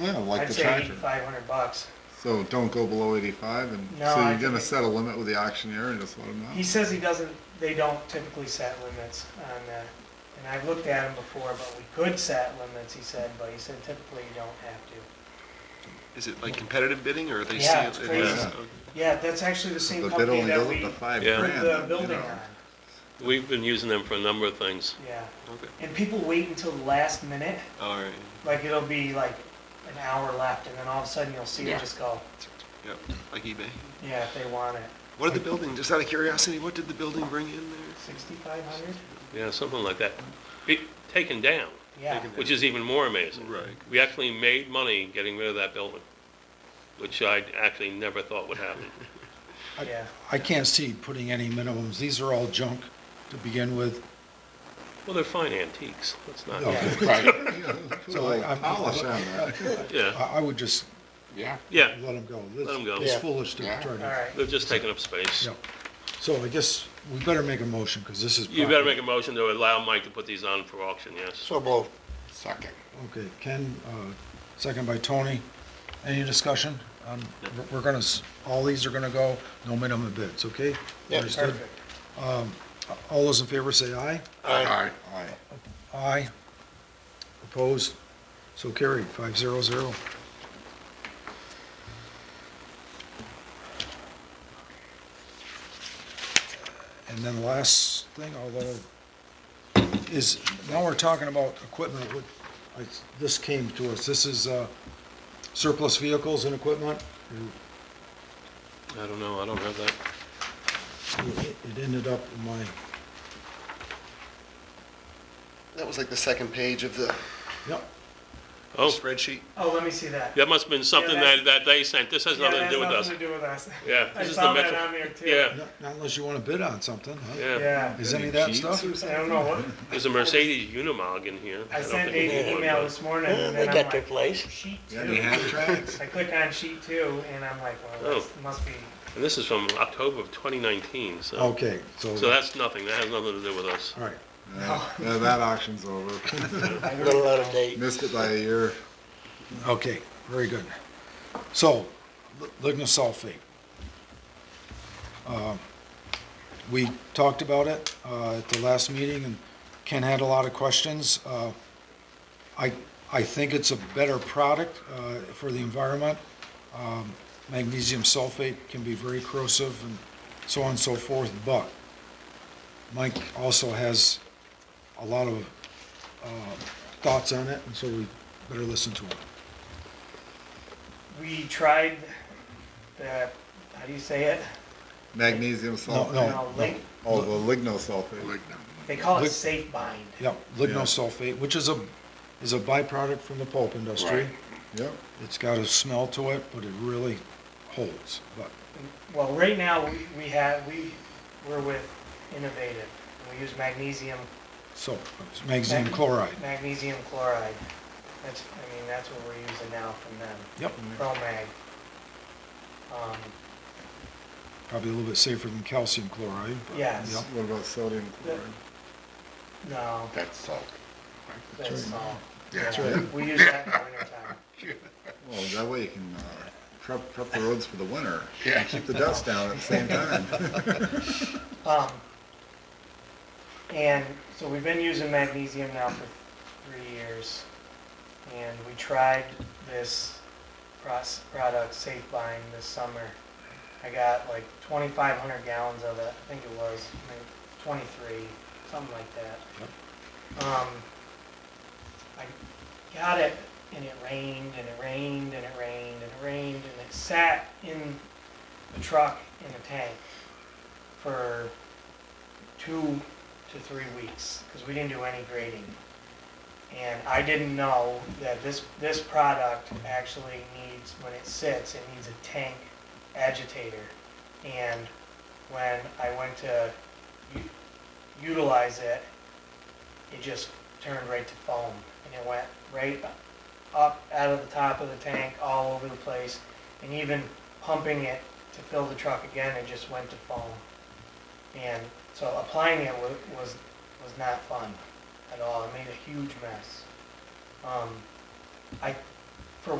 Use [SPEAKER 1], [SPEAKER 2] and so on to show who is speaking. [SPEAKER 1] Yeah, like
[SPEAKER 2] I'd
[SPEAKER 1] the
[SPEAKER 2] say
[SPEAKER 1] tractor.
[SPEAKER 2] eighty-five hundred bucks.
[SPEAKER 1] So don't go below eighty-five and,
[SPEAKER 2] No,
[SPEAKER 1] so
[SPEAKER 2] I
[SPEAKER 1] you're gonna
[SPEAKER 2] think-
[SPEAKER 1] set a limit with the auctioneer and just let him
[SPEAKER 2] He
[SPEAKER 1] know?
[SPEAKER 2] says he doesn't, they don't typically set limits on, uh, and I've looked at them before, but we could set limits, he said, but he said typically you don't have to.
[SPEAKER 3] Is it like competitive bidding or are they
[SPEAKER 2] Yeah,
[SPEAKER 3] seeing?
[SPEAKER 2] it's
[SPEAKER 3] it
[SPEAKER 2] crazy.
[SPEAKER 3] is-
[SPEAKER 1] Yeah.
[SPEAKER 3] okay.
[SPEAKER 2] Yeah, that's actually the
[SPEAKER 1] The
[SPEAKER 2] same
[SPEAKER 1] bid
[SPEAKER 2] company
[SPEAKER 1] only
[SPEAKER 2] that
[SPEAKER 1] goes
[SPEAKER 2] we
[SPEAKER 1] up to five
[SPEAKER 4] Yeah.
[SPEAKER 1] grand,
[SPEAKER 2] put the
[SPEAKER 1] you
[SPEAKER 2] building
[SPEAKER 1] know.
[SPEAKER 2] on,
[SPEAKER 4] We've been using them for a number of things.
[SPEAKER 2] yeah.
[SPEAKER 3] Okay.
[SPEAKER 2] And people wait until the last minute,
[SPEAKER 3] All right,
[SPEAKER 2] like it'll be like an hour left, and then all of a sudden you'll see
[SPEAKER 5] Yeah.
[SPEAKER 2] it just go,
[SPEAKER 3] yep, like eBay.
[SPEAKER 2] yeah, if they want it.
[SPEAKER 3] What did the building, just out of curiosity, what did the building bring in there?
[SPEAKER 2] Sixty-five hundred?
[SPEAKER 4] Yeah, something like that. Be taken down,
[SPEAKER 2] Yeah,
[SPEAKER 3] Taken
[SPEAKER 4] which is even more amazing.
[SPEAKER 3] Right.
[SPEAKER 4] We actually made money getting rid of that building, which I actually never thought would happen.
[SPEAKER 2] yeah.
[SPEAKER 6] I can't see putting any minimums. These are all junk to begin with.
[SPEAKER 4] Well, they're fine antiques, let's not,
[SPEAKER 6] Okay.
[SPEAKER 1] Right. Put a
[SPEAKER 6] So
[SPEAKER 1] little
[SPEAKER 6] I'm-
[SPEAKER 1] polish on that.
[SPEAKER 4] yeah,
[SPEAKER 6] I, I would just
[SPEAKER 1] Yeah.
[SPEAKER 4] yeah,
[SPEAKER 6] let them go.
[SPEAKER 4] Let 'em go.
[SPEAKER 6] It's
[SPEAKER 4] Yeah.
[SPEAKER 6] foolish to
[SPEAKER 1] Yeah.
[SPEAKER 6] try
[SPEAKER 2] All
[SPEAKER 6] to,
[SPEAKER 2] right,
[SPEAKER 4] they've just taken up space.
[SPEAKER 6] yeah. So I guess we better make a motion, because this is.
[SPEAKER 4] You better make
[SPEAKER 6] property.
[SPEAKER 4] a motion to allow Mike to put these on for auction, yes.
[SPEAKER 5] So moved.
[SPEAKER 1] Second.
[SPEAKER 6] Okay, Ken, uh, second by Tony. Any discussion? Um, we're- We're gonna, s- all these are gonna go, no minimum bids, okay?
[SPEAKER 5] Yeah,
[SPEAKER 6] Understood?
[SPEAKER 2] perfect.
[SPEAKER 6] All those in favor say aye.
[SPEAKER 1] Aye. Aye.
[SPEAKER 6] Aye. Opposed? So carried, five zero zero. And then last thing, although, is, now we're talking about equipment, what, I, this came to us, this is, uh, surplus vehicles and equipment?
[SPEAKER 4] I don't know, I don't have that.
[SPEAKER 6] It it ended up in my,
[SPEAKER 5] That was like the second page of the
[SPEAKER 6] yep,
[SPEAKER 4] Oh,
[SPEAKER 3] Spreadsheet?
[SPEAKER 2] Oh, let me see that.
[SPEAKER 4] that must have been something
[SPEAKER 2] that's-
[SPEAKER 4] that, that they sent, this has
[SPEAKER 2] Yeah,
[SPEAKER 4] nothing to
[SPEAKER 2] that
[SPEAKER 4] do with
[SPEAKER 2] has
[SPEAKER 4] us.
[SPEAKER 2] Nothing to do with us.
[SPEAKER 4] Yeah,
[SPEAKER 2] I
[SPEAKER 4] this is
[SPEAKER 2] saw
[SPEAKER 4] the
[SPEAKER 2] that
[SPEAKER 4] metro,
[SPEAKER 2] on there too.
[SPEAKER 4] yeah,
[SPEAKER 6] not not unless you wanna bid on something, huh?
[SPEAKER 4] yeah.
[SPEAKER 2] Yeah.
[SPEAKER 6] Is any of that
[SPEAKER 1] Any
[SPEAKER 6] stuff?
[SPEAKER 2] I don't know what,
[SPEAKER 4] There's a Mercedes Unimog in here.
[SPEAKER 2] I
[SPEAKER 4] don't
[SPEAKER 2] sent Nate
[SPEAKER 4] think we
[SPEAKER 2] an
[SPEAKER 4] want
[SPEAKER 2] email
[SPEAKER 4] that.
[SPEAKER 2] this morning
[SPEAKER 5] Yeah,
[SPEAKER 2] and then
[SPEAKER 5] they
[SPEAKER 2] I'm
[SPEAKER 5] got their
[SPEAKER 2] like,
[SPEAKER 5] place.
[SPEAKER 2] sheet
[SPEAKER 1] Yeah, they
[SPEAKER 2] two.
[SPEAKER 1] have tracks.
[SPEAKER 2] I click on sheet two and I'm like, well,
[SPEAKER 4] Oh.
[SPEAKER 2] this must be,
[SPEAKER 4] And this is from October of 2019, so.
[SPEAKER 6] Okay,
[SPEAKER 4] So that's nothing, that has nothing to do with us.
[SPEAKER 6] All right,
[SPEAKER 1] Yeah, yeah, that auction's over.
[SPEAKER 5] little out of date.
[SPEAKER 1] Missed it by a year.
[SPEAKER 6] okay, very good. So, li- lignosulfate. Um, We talked about it uh, at the last meeting, and Ken had a lot of questions. Uh, I, I think it's a better product uh, for the environment. Um, Magnesium sulfate can be very corrosive and so on and so forth, but Mike also has a lot of uh, thoughts on it, and so we better listen to him.
[SPEAKER 2] we tried the, how do you say it?
[SPEAKER 1] Magnesium
[SPEAKER 6] No,
[SPEAKER 1] sulfate.
[SPEAKER 6] no,
[SPEAKER 2] No,
[SPEAKER 6] no.
[SPEAKER 2] lig-
[SPEAKER 1] Oh, the lignosulfate.
[SPEAKER 2] They call it
[SPEAKER 6] Lig-
[SPEAKER 2] safe bind.
[SPEAKER 6] Yeah, lignosulfate, which is a, is a byproduct from the pulp industry.
[SPEAKER 1] Right. Yep.
[SPEAKER 6] It's got a smell to it, but it really holds. But,
[SPEAKER 2] Well, right now, we- we have, we, we're with Innovative. We use magnesium,
[SPEAKER 6] so, magnesium chloride.
[SPEAKER 2] magnesium chloride. That's, I mean, that's what we're using now from them,
[SPEAKER 6] Yep,
[SPEAKER 2] ProMag. Um,
[SPEAKER 6] probably a little bit safer than calcium chloride. but-
[SPEAKER 2] Yes.
[SPEAKER 6] Yep,
[SPEAKER 1] What about sodium chloride?
[SPEAKER 2] No,
[SPEAKER 5] That's salt.
[SPEAKER 2] that's salt.
[SPEAKER 6] That's
[SPEAKER 2] Yeah,
[SPEAKER 6] right.
[SPEAKER 2] We use that in the wintertime.
[SPEAKER 1] Well, that way you can uh, prep, prep the roads for the winter.
[SPEAKER 5] Yeah.
[SPEAKER 1] Keep the dust down at the same time.
[SPEAKER 2] Um, and so we've been using magnesium now for three years. And we tried this pros- product, Safe Bind, this summer. I got like 2,500 gallons of it, I think it was, maybe 23, something like that. Um, I got it and it rained and it rained and it rained and it rained and it sat in the truck in the tank for two to three weeks because we didn't do any grading. And I didn't know that this, this product actually needs, when it sits, it needs a tank agitator. And when I went to u- utilize it, it just turned right to foam. And it went right up out of the top of the tank, all over the place. And even pumping it to fill the truck again, it just went to foam. And so applying it was, was, was not fun at all. It made a huge mess. Um, I